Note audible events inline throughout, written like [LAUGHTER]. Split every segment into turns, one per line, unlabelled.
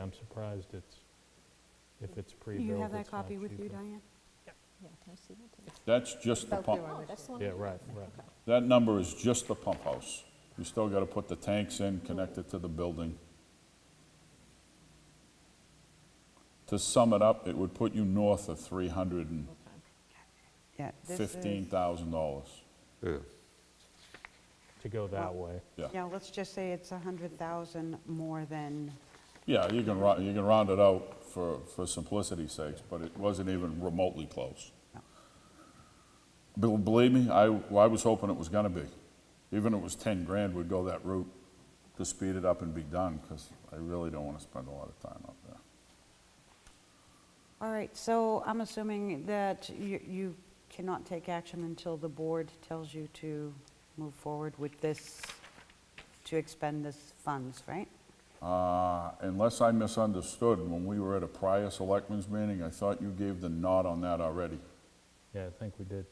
I'm surprised it's, if it's
Do you
pre-built,
have that
it's not
copy with you,
cheaper.
Diane?
Yeah, can I see that? Oh,
That's just the
Out there
pump,
on this one?
Yeah, right, right.
that number is just the pump house. You still gotta put the tanks in, connect it to the building. To sum it up, it would put you north of three hundred and
Yeah, this is-
fifteen thousand dollars.
Yeah.
To go that way.
Yeah, let's just say it's 100,000 more than,
Yeah, you can round, you can round it out for, for simplicity's sakes, but it wasn't even remotely close. Bel- Believe me, I, well, I was hoping it was gonna be. Even if it was ten grand, we'd go that route to speed it up and be done, because I really don't wanna spend a lot of time up there.
all right, so I'm assuming that you you cannot take action until the board tells you to move forward with this, to expend this funds, right?
Uh, Unless I misunderstood, when we were at a prior selectmen's meeting, I thought you gave the nod on that already.
Yeah, I think we did.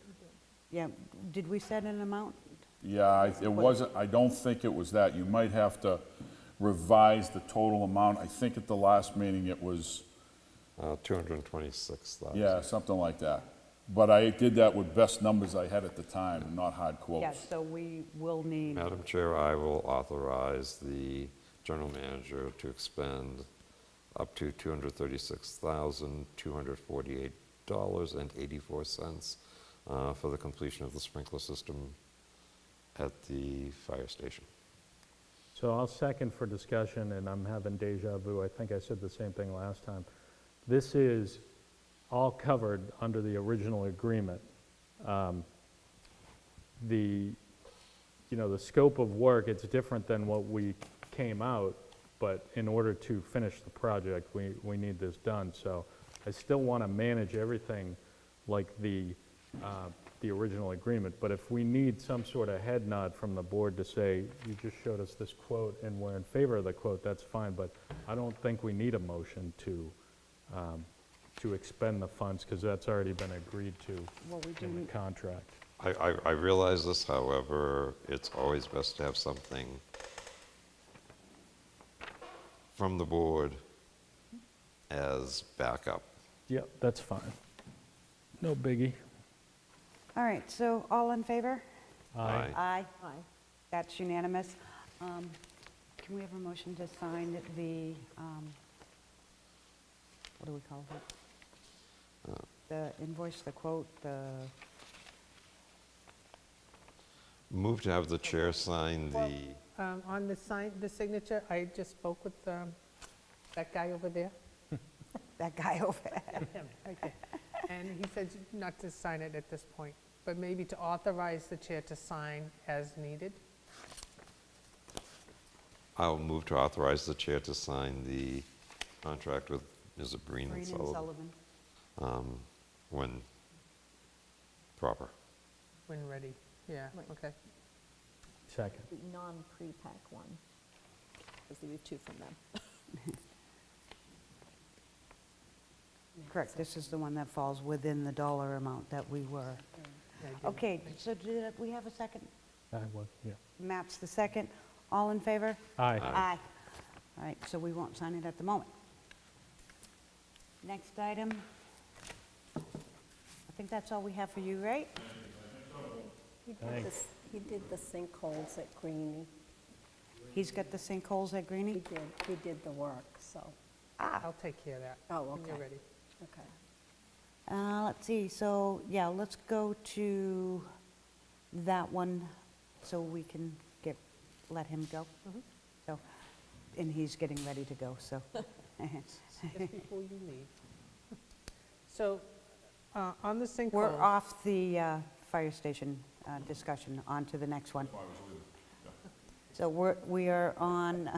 Yeah, did we set an amount?
Yeah, I- it wasn't, I don't think it was that. You might have to revise the total amount. I think at the last meeting it was,
Uh, 226,000.
yeah, something like that. But I did that with best numbers I had at the time, and not hard
Yeah,
quotes.
so we will need,
Madam Chair, I will authorize the general manager to expend up to $236,248.84 uh, for the completion of the sprinkler system at the fire station.
So I'll second for discussion, and I'm having deja vu. I think I said the same thing last time. This is all covered under the original agreement. Um, The, you know, the scope of work, it's different than what we came out, but in order to finish the project, we, we need this done. So I still want to manage everything like the, uh, the original agreement, but if we need some sort of head nod from the board to say, you just showed us this quote and we're in favor of the quote, that's fine, but I don't think we need a motion to, um, to expend the funds, because that's already been agreed
Well, we
to in the
didn't-
contract.
I, I, I realize this, however, it's always best to have something from the board as backup.
Yep, that's fine. No biggie.
all right, so all in favor?
Aye.
Aye,
Aye.
that's unanimous. Um, Can we have a motion to sign the, um, what do we call it?
Uh.
The invoice, the quote, the,
Move to have the chair sign
Well-
the,
Um, On the sign, the signature, I just spoke with um, that guy over [LAUGHS] there,
that guy [LAUGHS] over there.
him, okay. [LAUGHS] And he said not to sign it at this point, but maybe to authorize the chair to sign as needed.
I'll move to authorize the chair to sign the contract with, is it Breen
Green
and
and
Sullivan?
Sullivan.
Um, When proper.
When ready, yeah,
Right.
okay.
Second.
The non-pre-pack one, because there were two from them.
Correct, this is the one that falls within the dollar amount that we were.
I do.
Okay, so did we have a second?
Aye, well, yeah.
Matt's the second. All in favor?
Aye.
Aye. All right, so we won't sign it at the moment. Next item. I think that's all we have for you, right?
He did
Thanks.
this- He did the sinkholes at Greenie.
He's got the sinkholes at
He
Greenie?
did, he did the work, so,
I'll take care of that.
Oh,
When you're
okay.
ready.
okay.
Uh, Let's see, so, yeah, let's go to that one so we can get, let him go. So, and he's getting ready to go, so. [LAUGHS]
Just before you leave. [LAUGHS] So uh, on the sinkhole.
We're off the uh, fire station uh, discussion, on to the next one. So we're, we are on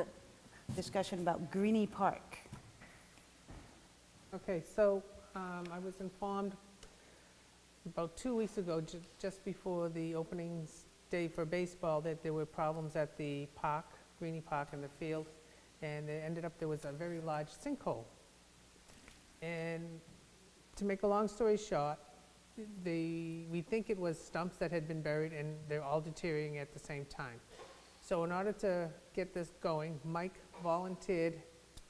[LAUGHS] discussion about Greenie Park.
Okay, so um, I was informed about two weeks ago, ju- just before the openings day for baseball, that there were problems at the park, Greenie Park and the field, and it ended up, there was a very large sinkhole. And to make a long story short, the, we think it was stumps that had been buried, and they're all deteriorating at the same time. So in order to get this going, Mike volunteered